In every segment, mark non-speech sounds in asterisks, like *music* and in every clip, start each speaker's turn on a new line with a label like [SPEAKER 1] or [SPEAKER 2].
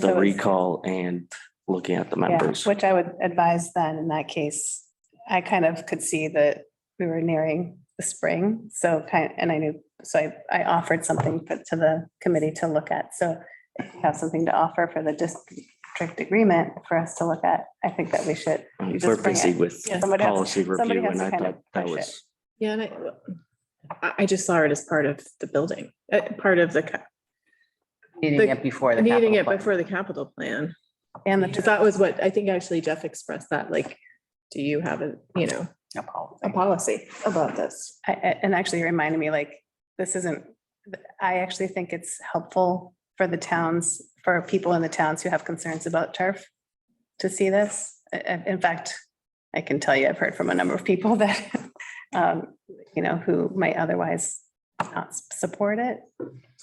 [SPEAKER 1] So
[SPEAKER 2] the
[SPEAKER 1] it's-
[SPEAKER 2] recall and looking at the
[SPEAKER 1] Yeah,
[SPEAKER 2] members.
[SPEAKER 1] Which I would advise then in that case, I kind of could see that we were nearing the spring. So kind, and I knew, so I, I offered something for- to the committee to look at. So if you have something to offer for the district agreement for us to look at, I think that we should.
[SPEAKER 2] Um,
[SPEAKER 1] you just
[SPEAKER 2] We're
[SPEAKER 1] bring
[SPEAKER 2] busy
[SPEAKER 1] it.
[SPEAKER 2] with
[SPEAKER 1] Yeah, somebody has-
[SPEAKER 2] policy
[SPEAKER 1] somebody
[SPEAKER 2] review and
[SPEAKER 1] has to
[SPEAKER 2] I
[SPEAKER 1] kind of
[SPEAKER 2] thought that
[SPEAKER 1] push it.
[SPEAKER 2] was,
[SPEAKER 3] Yeah, and I, I, I just saw it as part of the building, uh, part of the, ca-
[SPEAKER 4] Needing
[SPEAKER 3] The-
[SPEAKER 4] it before the.
[SPEAKER 3] needing it
[SPEAKER 4] capital plan.
[SPEAKER 3] before the capital plan.
[SPEAKER 1] And
[SPEAKER 3] Because
[SPEAKER 1] the,
[SPEAKER 3] that was what, I think actually Jeff expressed that, like, do you have a, you know,
[SPEAKER 4] No problem.
[SPEAKER 3] a policy about this? *laughs*
[SPEAKER 1] I- I- and actually reminded me like, this isn't, I actually think it's helpful for the towns, for people in the towns who have concerns about turf to see this. I- I- In fact, I can tell you, I've heard from a number of people *laughs* that, um, you know, who might otherwise not s- support it,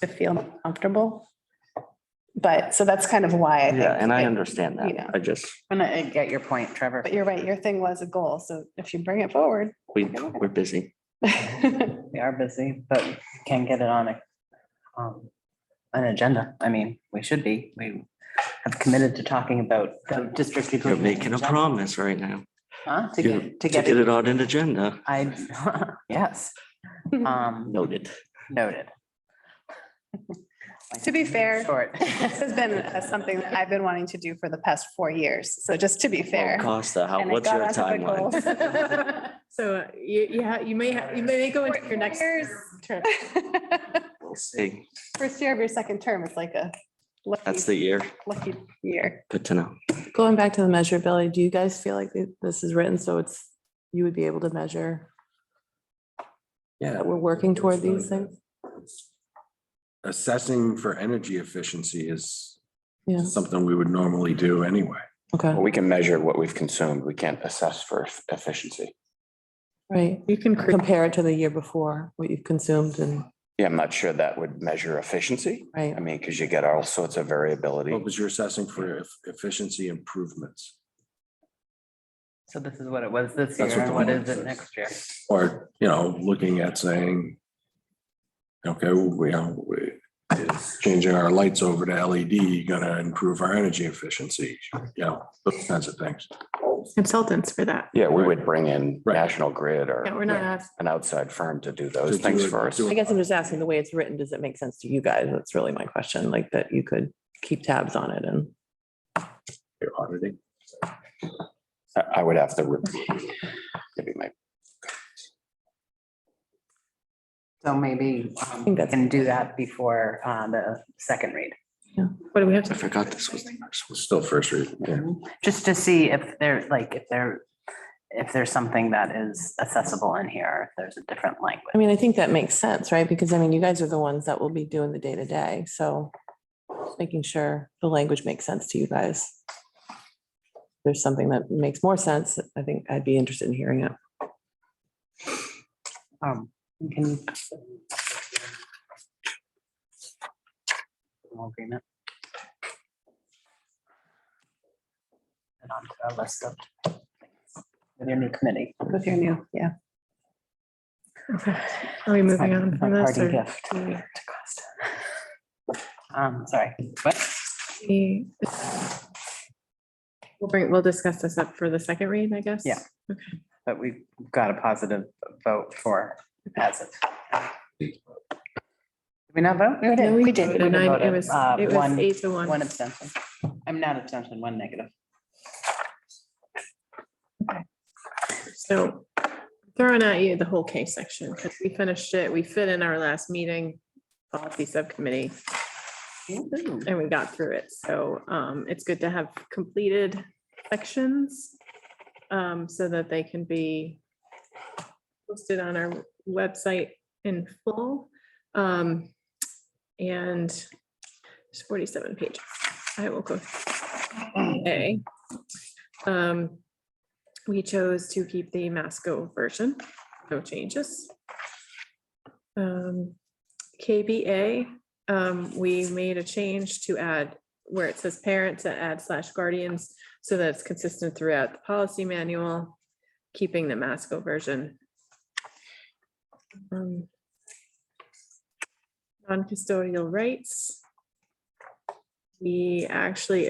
[SPEAKER 1] to feel comfortable. But, so that's kind of why I think.
[SPEAKER 2] yeah, and I
[SPEAKER 1] it-
[SPEAKER 2] understand
[SPEAKER 1] you know.
[SPEAKER 2] that. I just,
[SPEAKER 4] And I I get your point, Trevor.
[SPEAKER 1] But you're right, your thing was a goal, so if you bring it forward. *laughs*
[SPEAKER 2] we, we're busy.
[SPEAKER 4] We are busy, but can get it on a, um, an agenda. I mean, we should be. We have committed to talking about the district.
[SPEAKER 2] You're
[SPEAKER 4] improvement
[SPEAKER 2] making a
[SPEAKER 4] agenda,
[SPEAKER 2] promise right now.
[SPEAKER 4] huh, To
[SPEAKER 2] You're-
[SPEAKER 4] get, to get
[SPEAKER 2] it
[SPEAKER 4] it,
[SPEAKER 2] on an agenda.
[SPEAKER 4] I, *laughs* yes.
[SPEAKER 2] *laughs*
[SPEAKER 4] Um,
[SPEAKER 2] Noted.
[SPEAKER 4] noted.
[SPEAKER 1] To be fair,
[SPEAKER 4] *laughs* Short.
[SPEAKER 1] This *laughs* has been uh, something that I've been wanting to do for the past four years. So just to be fair.
[SPEAKER 2] Costa, uh, how,
[SPEAKER 1] and I
[SPEAKER 2] Oh, what's
[SPEAKER 1] got
[SPEAKER 2] your
[SPEAKER 1] on to the
[SPEAKER 2] timeline? *laughs*
[SPEAKER 1] goals.
[SPEAKER 3] So uh, you, you have, you may, ha- you may go into your next.
[SPEAKER 1] Years.
[SPEAKER 3] term.
[SPEAKER 2] We'll see.
[SPEAKER 1] *laughs* First year of your second term is like a
[SPEAKER 2] That's
[SPEAKER 1] lucky,
[SPEAKER 2] the year.
[SPEAKER 1] lucky year.
[SPEAKER 2] Good to know.
[SPEAKER 5] Going back to the measurability, do you guys feel like th- this is written so it's, you would be able to measure
[SPEAKER 6] Yeah.
[SPEAKER 5] that we're working toward these
[SPEAKER 6] Absolutely.
[SPEAKER 5] things?
[SPEAKER 6] Assessing for energy efficiency is
[SPEAKER 5] Yeah.
[SPEAKER 6] something we would normally do anyway.
[SPEAKER 5] Okay,
[SPEAKER 7] Well, We can measure what we've consumed. We can't assess for eff- efficiency.
[SPEAKER 5] right.
[SPEAKER 3] You can create
[SPEAKER 5] Compare it to the year before, what you've consumed and,
[SPEAKER 7] Yeah, I'm not sure that would measure efficiency.
[SPEAKER 5] right,
[SPEAKER 7] I mean, because you get all sorts of variability.
[SPEAKER 6] What was your assessing for eff- efficiency improvements?
[SPEAKER 4] So this is what it was this year.
[SPEAKER 6] That's what the
[SPEAKER 4] and What
[SPEAKER 6] one
[SPEAKER 4] is it
[SPEAKER 6] says.
[SPEAKER 4] next year?
[SPEAKER 6] Or, you know, looking at saying, okay, we, you know, we, is changing our lights over to LED gonna improve our energy efficiency? You know, those kinds of things.
[SPEAKER 3] consultants for that.
[SPEAKER 7] Yeah, we would bring in
[SPEAKER 6] Right.
[SPEAKER 7] National Grid or
[SPEAKER 3] Yeah, we're not, ask-
[SPEAKER 7] an outside firm to
[SPEAKER 6] To
[SPEAKER 7] do those
[SPEAKER 6] do
[SPEAKER 7] things
[SPEAKER 6] it-
[SPEAKER 7] for us.
[SPEAKER 6] do
[SPEAKER 5] I guess I'm just asking, the way it's written, does it make sense to you guys? That's really my question, like that you could keep tabs on it and.
[SPEAKER 6] You're auditing.
[SPEAKER 7] I- I would have to. review. Maybe my
[SPEAKER 4] So maybe um, we
[SPEAKER 5] think that's-
[SPEAKER 4] can do that before uh, the second read.
[SPEAKER 3] what do we have
[SPEAKER 2] I
[SPEAKER 3] to,
[SPEAKER 2] forgot this was the first one.
[SPEAKER 6] Still first read. yeah.
[SPEAKER 4] Just to see if there, like, if there, if there's something that is accessible in here, or if there's a different language.
[SPEAKER 5] I mean, I think that makes sense, right? Because I mean, you guys are the ones that will be doing the day to day, so just making sure the language makes sense to you guys. If There's something that makes more sense. I think I'd be interested in hearing it.
[SPEAKER 4] Um, we can. All Agreement. And on to our list of. things With your new committee.
[SPEAKER 1] With your new, yeah.
[SPEAKER 3] okay, are we moving
[SPEAKER 4] My-
[SPEAKER 3] on
[SPEAKER 4] my
[SPEAKER 3] from this?
[SPEAKER 4] parting
[SPEAKER 3] or
[SPEAKER 4] gift
[SPEAKER 3] do we-
[SPEAKER 4] to Costa. Um, sorry, what?
[SPEAKER 3] we- We'll bring, we'll discuss this up for the second read, I guess.
[SPEAKER 4] Yeah. But we've got a positive vote for passive. Did we not vote? We
[SPEAKER 3] No,
[SPEAKER 4] did.
[SPEAKER 3] voted.
[SPEAKER 4] We
[SPEAKER 3] Nine- It
[SPEAKER 4] voted,
[SPEAKER 3] was,
[SPEAKER 4] uh,
[SPEAKER 3] it was
[SPEAKER 4] one-
[SPEAKER 3] eight to one.
[SPEAKER 4] One abstention. I'm not abstention, one negative.
[SPEAKER 3] So throwing at you the whole case section, because we finished it, we fit in our last meeting, policy subcommittee, and we got through it. So um, it's good to have completed sections um, so that they can be posted on our website in full. Um, And it's forty-seven pages. I will go. A. Um, we chose to keep the Masco version, no changes. Um, KBA, um, we made a change to add where it says parent to add slash guardians, so that it's consistent throughout the policy manual, keeping the Masco version. Um, Non-custodial rights.
[SPEAKER 1] We actually